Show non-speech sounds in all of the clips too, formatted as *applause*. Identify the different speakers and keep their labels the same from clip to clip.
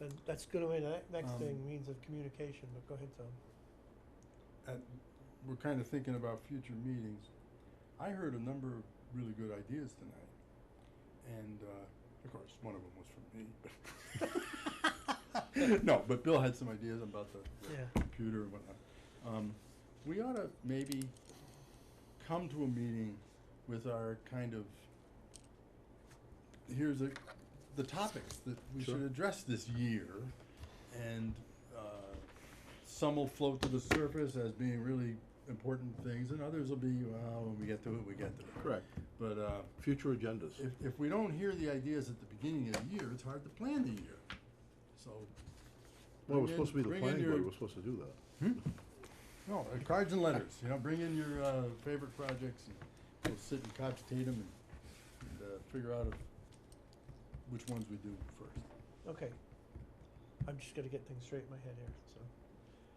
Speaker 1: Then that's gonna be the next
Speaker 2: Um,
Speaker 1: thing, means of communication, but go ahead, Tom.
Speaker 2: at, we're kind of thinking about future meetings. I heard a number of really good ideas tonight, and uh, of course, one of them was from me. but- *laughs* no, but Bill had some ideas about the, the
Speaker 1: Yeah.
Speaker 2: computer and whatnot. Um, we ought to maybe come to a meeting with our kind of here's a, the topics that we
Speaker 3: Sure.
Speaker 2: should address this year, and uh, some will float to the surface as being really important things, and others will be, well, when we get to it, we get to it.
Speaker 3: Correct.
Speaker 2: But uh,
Speaker 3: Future agendas.
Speaker 2: if, if we don't hear the ideas at the beginning of the year, it's hard to plan the year. So.
Speaker 3: Well, it was
Speaker 2: bring in-
Speaker 3: supposed to be the
Speaker 2: bring in
Speaker 3: planning
Speaker 2: your-
Speaker 3: board, we're supposed to do that.
Speaker 1: Hmm?
Speaker 2: No, uh, cards and letters, you know, bring in your uh, favorite projects and we'll sit and cogitate them and, and uh, figure out if- which ones we do first.
Speaker 1: Okay. I'm just gonna get things straight in my head here, so.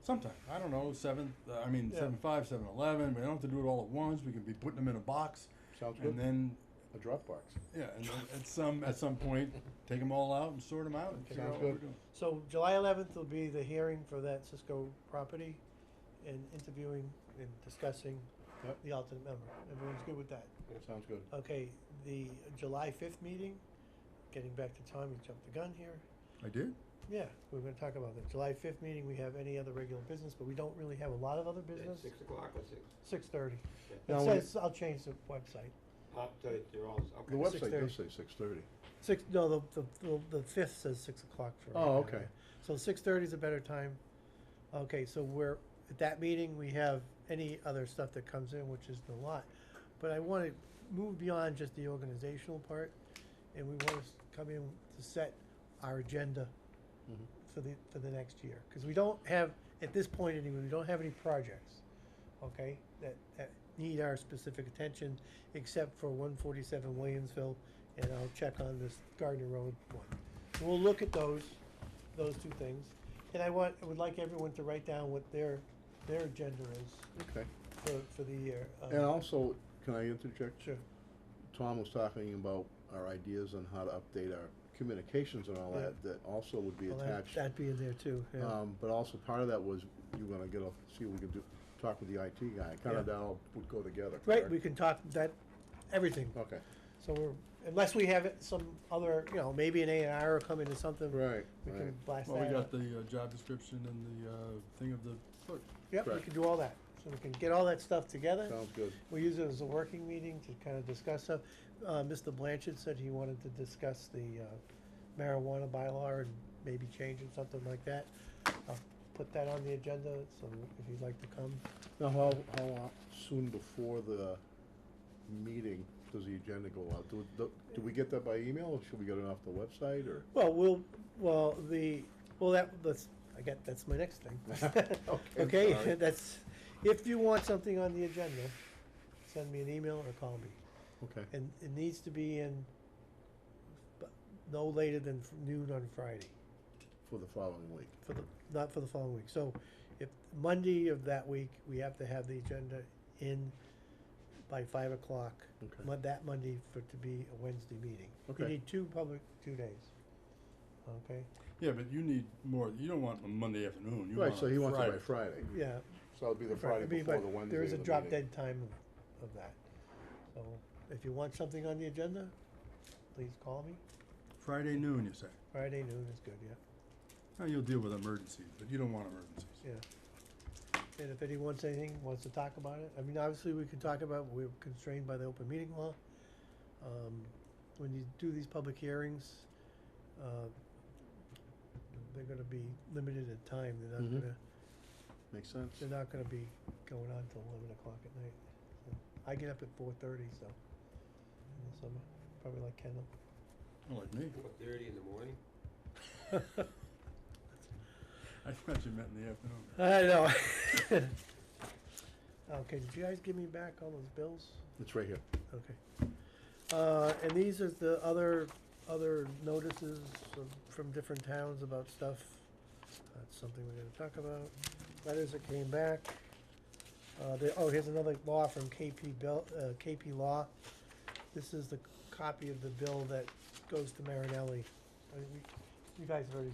Speaker 2: Sometime, I don't know, seven, uh, I mean,
Speaker 1: Yeah.
Speaker 2: seven five, seven eleven, we don't have to do it all at once, we can be putting them in a box.
Speaker 3: Sounds
Speaker 2: And
Speaker 3: good.
Speaker 2: then,
Speaker 3: A Dropbox.
Speaker 2: yeah, and then at some, at some point, take them all out and sort them out and
Speaker 1: Okay.
Speaker 2: figure out
Speaker 3: Sounds
Speaker 2: what we're
Speaker 3: good.
Speaker 2: doing.
Speaker 1: So July eleventh will be the hearing for that Cisco property and interviewing and discussing
Speaker 3: Yep.
Speaker 1: the alternate member. Everyone's good with that?
Speaker 3: Yeah, sounds good.
Speaker 1: Okay, the July fifth meeting, getting back to Tom, you jumped the gun here.
Speaker 2: I did?
Speaker 1: Yeah, we're gonna talk about that. July fifth meeting, we have any other regular business, but we don't really have a lot of other business.
Speaker 4: Six o'clock or six?
Speaker 1: Six thirty. It
Speaker 3: Now, when-
Speaker 1: says, I'll change the website.
Speaker 4: Pop, they're they're all, okay.
Speaker 3: The website
Speaker 1: 6:30.
Speaker 3: does say six thirty.
Speaker 1: Six, no, the, the, the, the fifth says six o'clock for.
Speaker 3: Oh,
Speaker 1: right now,
Speaker 3: okay.
Speaker 1: yeah. So six thirty is a better time. Okay, so we're, at that meeting, we have any other stuff that comes in, which is the lot. But I wanna move beyond just the organizational part, and we wanna s- come in to set our agenda for the, for the next year. Cause we don't have, at this point anyway, we don't have any projects, okay, that, that need our specific attention, except for one forty-seven Williamsville, and I'll check on this Gardner Road one. We'll look at those, those two things, and I want, I would like everyone to write down what their, their agenda is
Speaker 3: Okay.
Speaker 1: for, for the year. um,
Speaker 3: And also, can I interject?
Speaker 1: Sure,
Speaker 3: Tom was talking about our ideas on how to update our communications and all
Speaker 1: Yeah.
Speaker 3: that, that also would be
Speaker 1: well, that-
Speaker 3: attached.
Speaker 1: that'd be in there too, yeah,
Speaker 3: Um, but also part of that was you were gonna get a, see what we could do, talk with the IT guy, kinda
Speaker 1: Yeah.
Speaker 3: that all would go together.
Speaker 1: right,
Speaker 3: correct?
Speaker 1: we can talk that, everything,
Speaker 3: Okay,
Speaker 1: so we're, unless we have it- some other, you know, maybe an A and R will come into something.
Speaker 3: right,
Speaker 1: We
Speaker 3: right.
Speaker 1: can blast
Speaker 2: Well, we
Speaker 1: that
Speaker 2: got
Speaker 1: out.
Speaker 2: the uh, job description and the uh, thing of the clerk.
Speaker 1: Yep, we
Speaker 3: correct.
Speaker 1: can do all that, so we can get all that stuff together.
Speaker 3: Sounds good.
Speaker 1: We use it as a working meeting to kind of discuss stuff. Uh, Mr. Blanchard said he wanted to discuss the uh, marijuana bylaw and maybe changing something like that. I'll put that on the agenda, so if you'd like to come.
Speaker 3: Now, how, how lo- soon before the meeting does the agenda go out? Do, do do we get that by email, or should we get it off the website, or?
Speaker 1: Well, we'll, well, the, well, that, that's, I get, that's my next
Speaker 3: *laughs*
Speaker 1: thing.
Speaker 3: Okay,
Speaker 1: Okay,
Speaker 3: sorry.
Speaker 1: that's, if you want something on the agenda, send me an email or call me.
Speaker 3: Okay,
Speaker 1: And it needs to be in bu- no later than noon on Friday.
Speaker 3: for the following week.
Speaker 1: for the, not for the following week. So if Monday of that week, we have to have the agenda in by five o'clock.
Speaker 3: Okay.
Speaker 1: Mon- That Monday for it to be a Wednesday meeting. You
Speaker 3: Okay.
Speaker 1: need two public, two days. Okay,
Speaker 2: Yeah, but you need more, you don't want a Monday afternoon, you want
Speaker 3: Right, so he
Speaker 2: a
Speaker 3: wants it by
Speaker 2: Friday.
Speaker 3: Friday,
Speaker 1: yeah.
Speaker 3: so it'll be the
Speaker 1: Right, I
Speaker 3: Friday
Speaker 1: mean,
Speaker 3: before
Speaker 1: but
Speaker 3: the Wednesday
Speaker 1: There is a
Speaker 3: of the
Speaker 1: drop
Speaker 3: meeting.
Speaker 1: dead time of- of that. So if you want something on the agenda, please call me.
Speaker 2: Friday noon, you say?
Speaker 1: Friday noon is good, yeah.
Speaker 2: Now, you'll deal with emergencies, but you don't want emergencies.
Speaker 1: Yeah. And if anyone wants anything, wants to talk about it, I mean, obviously, we can talk about, we're constrained by the open meeting law. Um, when you do these public hearings, uh, they're gonna be limited in time, they're not
Speaker 3: Mhm.
Speaker 1: gonna,
Speaker 3: Makes sense.
Speaker 1: they're not gonna be going on till eleven o'clock at night. So, I get up at four thirty, so, in the summer, probably like Kendall.
Speaker 2: Well, like me.
Speaker 4: Four thirty in the morning?
Speaker 2: I thought you meant in the afternoon.
Speaker 1: *laughs* I know. *laughs* Okay, did you guys give me back all those bills?
Speaker 3: It's right here.
Speaker 1: Okay. Uh, and these are the other, other notices of- from different towns about stuff. That's something we're gonna talk about. Letters that came back. Uh, there, oh, here's another law from KP Bill, uh, KP Law. This is the copy of the bill that goes to Marinelli. I think we- You guys have already